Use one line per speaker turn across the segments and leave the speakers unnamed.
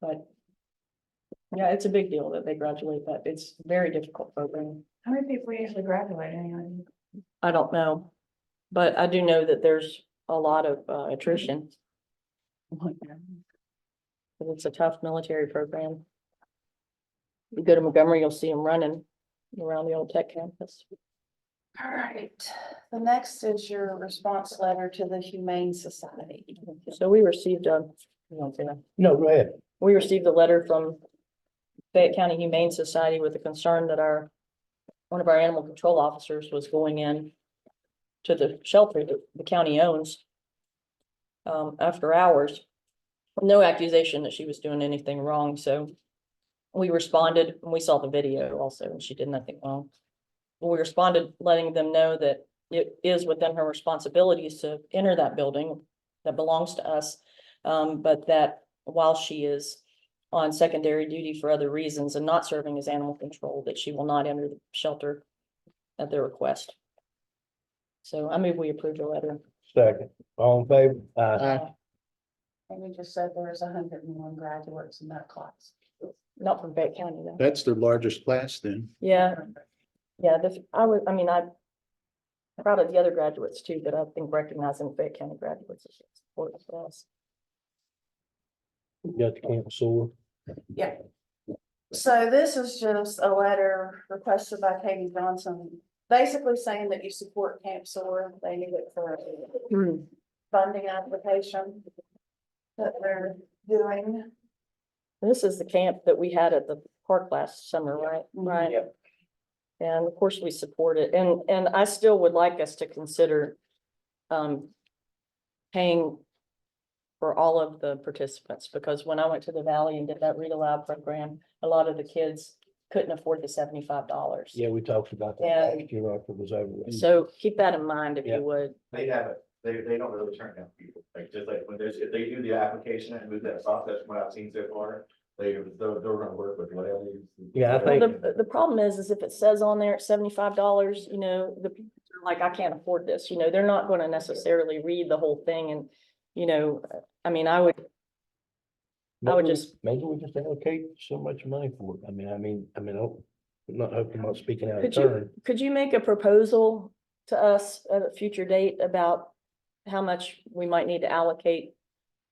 but. Yeah, it's a big deal that they graduate, but it's very difficult program.
How many people usually graduate anyway?
I don't know. But I do know that there's a lot of uh, attrition. 'Cause It's a tough military program. You go to Montgomery, you'll see them running around the old tech campus.
All right, the next is your response letter to the Humane Society.
So we received a, you know, yeah.
No, go ahead.
we received a letter from Fayette County Humane Society with a concern that our, one of our animal control officers was going in to the shelter that the county owns um, after hours. No accusation that she was doing anything wrong, so we responded, and we saw the video also, and she did nothing wrong. We responded letting them know that it is within her responsibilities to enter that building that belongs to us. Um, but that while she is on secondary duty for other reasons and not serving as animal control, that she will not enter the shelter at their request. So I move we approve the letter.
Second, all in favor? Aye.
Uh,
And we just said there was hundred and one graduates in that class.
Not from Fayette County though.
That's their largest class then.
Yeah, yeah, this, I would, I mean, I'm proud of the other graduates too, but I think recognizing Fayette County graduates is important for us.
Got the camp sore.
So this is just a letter requested by Katie Johnson, basically saying that you support Camp Soar. They need it for funding application that they're doing.
This is the camp that we had at the park last summer, right? Right.
Yep.
And of course, we support it, and, and I still would like us to consider, um, paying for all of the participants, because when I went to the valley and did that read aloud program, a lot of the kids couldn't afford the seventy-five dollars.
Yeah, we talked about that
Yeah.
last year after it was over. with.
So keep that in mind if
Yeah.
you would.
They haven't, they, they don't really turn down people, like, just like, when there's, if they do the application and move that process, from what I've seen so far, they, they're, they're gonna work with whatever. you-
Yeah, I
Well,
think-
the, the problem is, is if it says on there it's seventy-five dollars, you know, the people are like, I can't afford this, you know, they're not gonna necessarily read the whole thing and, you know, I mean, I would, I would
Maybe-
just-
Maybe we just allocate so much money for it. I mean, I mean, I mean, oh, I'm not hoping, I'm not speaking out of
Could you-
turn.
could you make a proposal to us at a future date about how much we might need to allocate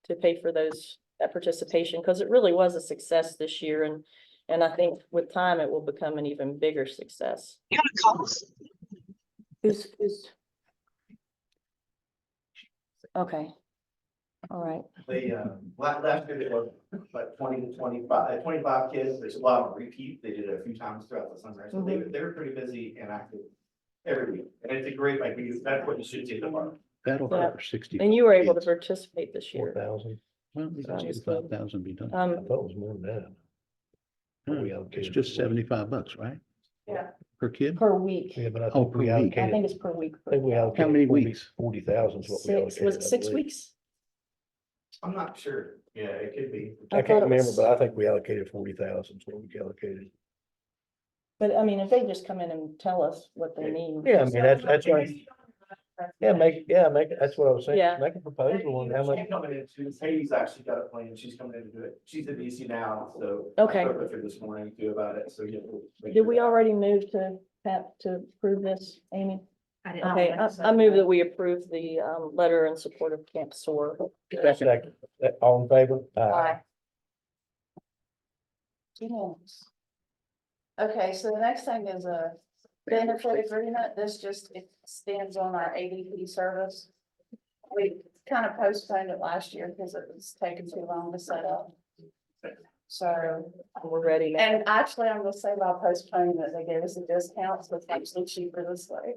to pay for those, that participation? Because it really was a success this year and, and I think with time it will become an even bigger success. Who's, who's? Okay. All right.
They, um, last, last year, it was like twenty to 25 uh, 25 kids, there's a lot of repeat, they did it a few times throughout the summer, so they, were- they were pretty busy and active every week, and it's a great, like, we- that's what you should see the mark.
That'll
Yeah.
cover sixty.
And you were able to participate this
Four
year.
thousand.
Well,
That was
sixty-five thousand be done.
I
Um,
thought it was more than that. What we
Huh. It's
allocated
just
for it.
seventy-five bucks, right?
Yeah.
Per kid?
per week.
Yeah, but I
Oh,
think
per
we
week.
I think
allocated,
it's per week.
I think we allocated.
many weeks?
Forty thousand is what we
Six,
allocated.
was it
I
six
believe.
weeks?
I'm not sure, yeah, it could be.
I
I
thought
can't
it
remember,
was-
but I think we allocated forty thousand is what we allocated.
But I mean, if they just come in and tell us what they
Yeah.
need.
Yeah, I mean, that's, that's right. Yeah, make, yeah, make, that's what I was saying,
Yeah.
make a proposal on how much,
She's coming in, she's, Katie's actually got a plan, she's coming in to do it, she's at DC now, so.
Okay.
I spoke with her this morning too about it, so yeah. we'll make
Did
sure
we
that-
already move to, Pat, to approve this, Amy?
I didn't
Okay, Uh, I, I move that we approve the, um, letter in support of Camp SOAR.
Second. Uh, all in favor?
Aye.
Yes. Okay, so the next thing is a benefit agreement. This just extends on our ADP service. We kind of postponed it last year because it was taking too long to set up. So,
We're ready now.
and actually, I'm gonna say by postponing that they gave us a discount, so it's actually cheaper this way.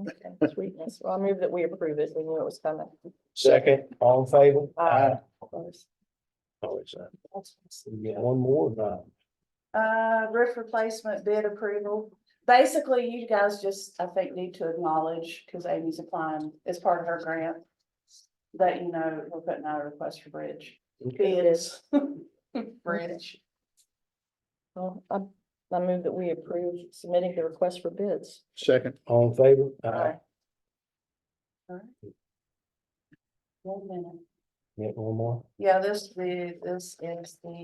Okay, Sweetness. Well, I move that we approve it. We knew it was coming.
Second, all in favor?
Aye. Of course.
Oh, it's, uh, we get one more, or
Uh, roof replacement bid approval. Basically, you guys just, I think, need to acknowledge, because Amy's applying, as part of her grant. That you know, we're putting out a request for bridge.
not?
Bids. Bridge.
Well, I, I move that we approve submitting the request for bids.
Second,
All in favor?
Aye.
One minute.
Get one more?
Yeah, this, the- this is the